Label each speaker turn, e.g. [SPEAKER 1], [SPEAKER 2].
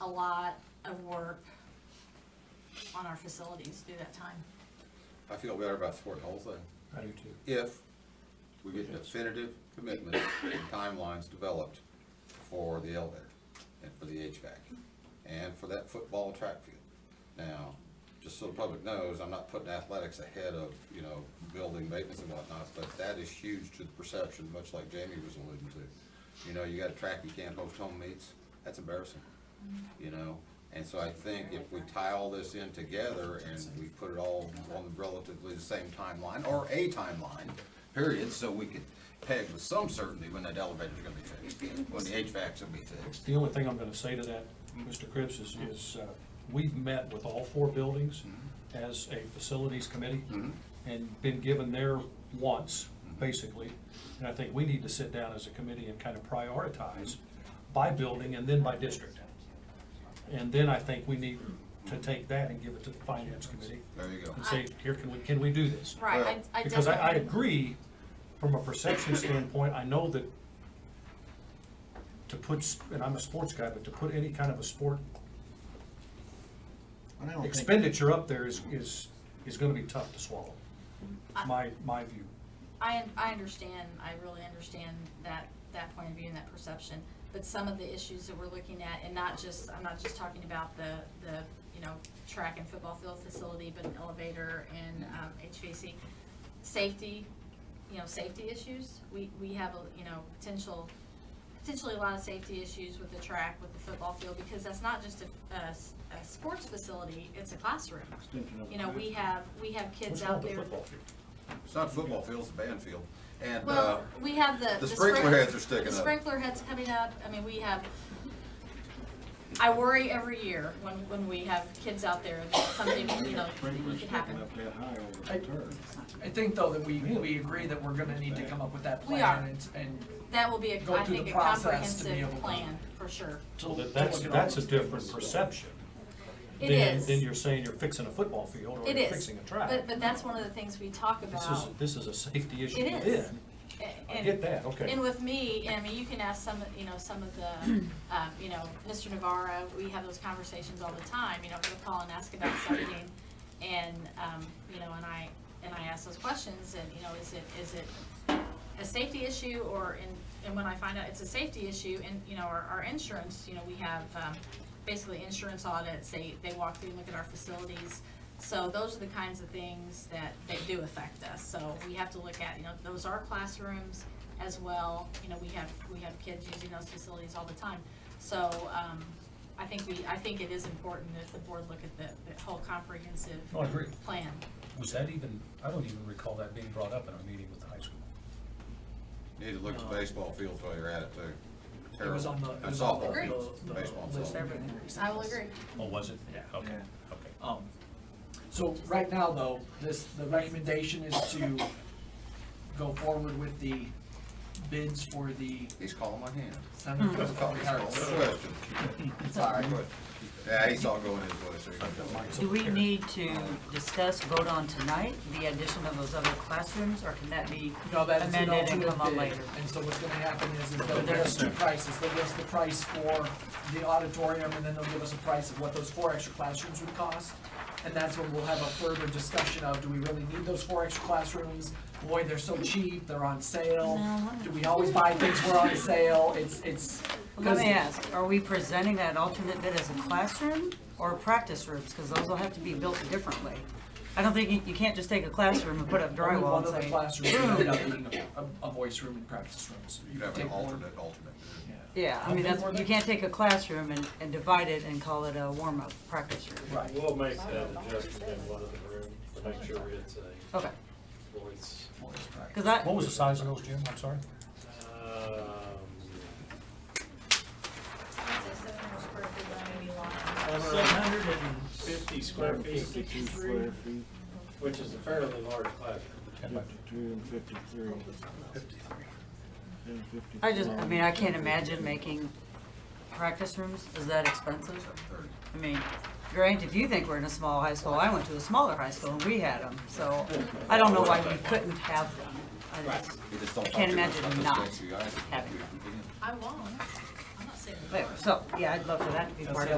[SPEAKER 1] a lot of work on our facilities through that time.
[SPEAKER 2] I feel better about supporting the whole thing.
[SPEAKER 3] I do too.
[SPEAKER 2] If we get definitive commitments and timelines developed for the elevator and for the HVAC and for that football track field. Now, just so the public knows, I'm not putting athletics ahead of, you know, building maintenance and whatnot, but that is huge to the perception, much like Jamie was alluding to. You know, you got a track, you can't host home meets, that's embarrassing, you know? And so I think if we tie all this in together and we put it all on relatively the same timeline, or a timeline, period, so we could peg with some certainty when that elevator's gonna be fixed, when the HVAC's gonna be fixed.
[SPEAKER 3] The only thing I'm gonna say to that, Mr. Cripps, is, is, uh, we've met with all four buildings as a facilities committee and been given their wants, basically. And I think we need to sit down as a committee and kind of prioritize by building and then by district. And then I think we need to take that and give it to the finance committee
[SPEAKER 2] There you go.
[SPEAKER 3] and say, here, can we, can we do this?
[SPEAKER 1] Right, I, I definitely.
[SPEAKER 3] Because I, I agree, from a perception standpoint, I know that to put, s- and I'm a sports guy, but to put any kind of a sport
[SPEAKER 4] And I don't think-
[SPEAKER 3] expenditure up there is, is, is gonna be tough to swallow. My, my view.
[SPEAKER 1] I, un- I understand, I really understand that, that point of view and that perception, but some of the issues that we're looking at, and not just, I'm not just talking about the, the, you know, track and football field facility, but an elevator and, um, HVAC. Safety, you know, safety issues, we, we have, a you know, potential, potentially a lot of safety issues with the track, with the football field, because that's not just a, a s- a sports facility, it's a classroom.
[SPEAKER 4] Extension of the
[SPEAKER 1] You know, we
[SPEAKER 4] classroom.
[SPEAKER 1] have, we have kids
[SPEAKER 3] What's
[SPEAKER 1] out
[SPEAKER 3] called the
[SPEAKER 1] there.
[SPEAKER 3] football field?
[SPEAKER 2] It's not football field, it's a band field. And, uh,
[SPEAKER 1] Well, we have the.
[SPEAKER 2] the sprinkler
[SPEAKER 1] sprink-
[SPEAKER 2] heads are sticking
[SPEAKER 1] The
[SPEAKER 2] up.
[SPEAKER 1] sprinkler heads coming up, I mean, we have, I worry every year when, when we have kids out there that something, you know, could
[SPEAKER 4] Sprinklers sticking
[SPEAKER 1] happen.
[SPEAKER 4] up that high over
[SPEAKER 5] I-
[SPEAKER 4] the turf.
[SPEAKER 5] I think though that we, we agree that we're gonna need to come up with that
[SPEAKER 1] We
[SPEAKER 5] plan
[SPEAKER 1] are.
[SPEAKER 5] and, and
[SPEAKER 1] That will be a,
[SPEAKER 5] Go
[SPEAKER 1] I
[SPEAKER 5] through
[SPEAKER 1] think,
[SPEAKER 5] the
[SPEAKER 1] a
[SPEAKER 5] process to be able
[SPEAKER 1] comprehensive
[SPEAKER 5] to-
[SPEAKER 1] plan, for sure.
[SPEAKER 3] So that, that's,
[SPEAKER 5] look at all
[SPEAKER 3] that's a
[SPEAKER 5] those
[SPEAKER 3] different
[SPEAKER 5] things.
[SPEAKER 3] perception.
[SPEAKER 1] It
[SPEAKER 3] than-
[SPEAKER 1] is.
[SPEAKER 3] Than you're saying you're fixing a football field or
[SPEAKER 1] It
[SPEAKER 3] you're
[SPEAKER 1] is,
[SPEAKER 3] fixing a track.
[SPEAKER 1] but, but that's one of the things we talk
[SPEAKER 3] This is,
[SPEAKER 1] about.
[SPEAKER 3] this is a safety issue
[SPEAKER 1] It is.
[SPEAKER 3] then.
[SPEAKER 1] A-
[SPEAKER 3] I
[SPEAKER 1] and-
[SPEAKER 3] get that, okay.
[SPEAKER 1] And with me, I mean, you can ask some, you know, some of the, um, you know, Mr. Navarro, we have those conversations all the time, you know, he'll call and ask about something. And, um, you know, and I, and I ask those questions and, you know, is it, is it a safety issue or, and, and when I find out it's a safety issue and, you know, our, our insurance, you know, we have, um, basically insurance audits, they, they walk through and look at our facilities. So those are the kinds of things that, that do affect us. So we have to look at, you know, those are classrooms as well. You know, we have, we have kids using those facilities all the time. So, um, I think we, I think it is important that the board look at the, the whole comprehensive
[SPEAKER 3] No, Oh, I agree.
[SPEAKER 1] plan.
[SPEAKER 3] Was that even, I don't even recall that being brought up in our meeting with the high school.
[SPEAKER 2] Need to look at the baseball field while you're at it too.
[SPEAKER 5] it was on the,
[SPEAKER 2] Terrible.
[SPEAKER 5] it
[SPEAKER 2] And
[SPEAKER 5] was on the,
[SPEAKER 2] softball
[SPEAKER 1] Agreed.
[SPEAKER 2] fields,
[SPEAKER 5] the, the
[SPEAKER 2] baseball, and
[SPEAKER 5] list
[SPEAKER 2] softball.
[SPEAKER 5] everything.
[SPEAKER 1] I will agree.
[SPEAKER 3] Oh, was it?
[SPEAKER 5] Yeah.
[SPEAKER 3] Okay,
[SPEAKER 4] Yeah.
[SPEAKER 3] okay.
[SPEAKER 5] Um, so right now though, this, the recommendation is to go forward with the bids for the
[SPEAKER 2] He's calling my hand.
[SPEAKER 5] Center for
[SPEAKER 2] That's a call,
[SPEAKER 5] Public
[SPEAKER 2] he's calling
[SPEAKER 5] Arts.
[SPEAKER 2] the question.
[SPEAKER 5] Sorry.
[SPEAKER 2] Yeah, he's all going his way, so he can go.
[SPEAKER 6] Do we need to discuss, vote on tonight, the addition of those other classrooms, or can that be
[SPEAKER 5] No, that is an
[SPEAKER 6] amended and
[SPEAKER 5] alternate
[SPEAKER 6] come up
[SPEAKER 5] bid.
[SPEAKER 6] later?
[SPEAKER 5] And so what's gonna happen is, is they'll give us two prices, they'll give us the price for the auditorium, and then they'll give us a price of what those four extra classrooms would cost. And that's when we'll have a further discussion of, do we really need those four extra classrooms? Boy, they're so cheap, they're on sale, do we always buy things we're on sale, it's, it's.
[SPEAKER 6] Let
[SPEAKER 5] 'cause-
[SPEAKER 6] me ask, are we presenting that alternate bid as a classroom or practice rooms? Because those will have to be built differently. I don't think, you, you can't just take a classroom and put up
[SPEAKER 5] Only
[SPEAKER 6] drywall
[SPEAKER 5] one of the
[SPEAKER 6] and say,
[SPEAKER 5] classrooms ended up being a, a voice room and practice rooms.
[SPEAKER 2] You have an
[SPEAKER 5] Take one.
[SPEAKER 2] alternate, alternate.
[SPEAKER 5] Yeah.
[SPEAKER 6] yeah, I mean, that's, you can't take a classroom and, and divide it and call it a warm-up practice room.
[SPEAKER 5] Right,
[SPEAKER 7] We'll make that adjustment in one of the rooms to make sure it's a
[SPEAKER 6] Okay,
[SPEAKER 7] voice.
[SPEAKER 5] voice practice.
[SPEAKER 6] because
[SPEAKER 3] What
[SPEAKER 6] I,
[SPEAKER 3] was the size of those, Jim? I'm sorry?
[SPEAKER 7] Um,
[SPEAKER 1] Right.
[SPEAKER 7] Seven hundred and fifty square feet,
[SPEAKER 4] square feet,
[SPEAKER 7] which is a fairly large classroom.
[SPEAKER 4] fifty-two and fifty-three. And
[SPEAKER 6] I just, I
[SPEAKER 4] 55.
[SPEAKER 6] mean, I can't imagine making practice rooms, is that expensive? I mean, Grant, if you think we're in a small high school, I went to a smaller high school and we had them, so I don't know why we couldn't have them. I just-
[SPEAKER 2] You just don't
[SPEAKER 6] I can't
[SPEAKER 2] talk too much about
[SPEAKER 6] imagine
[SPEAKER 2] this
[SPEAKER 6] not
[SPEAKER 2] stuff, you guys.
[SPEAKER 6] having
[SPEAKER 2] You can-
[SPEAKER 1] I won't, I'm not saying.
[SPEAKER 6] But, so, yeah, I'd love for that to be
[SPEAKER 5] That's
[SPEAKER 6] part
[SPEAKER 5] the
[SPEAKER 6] of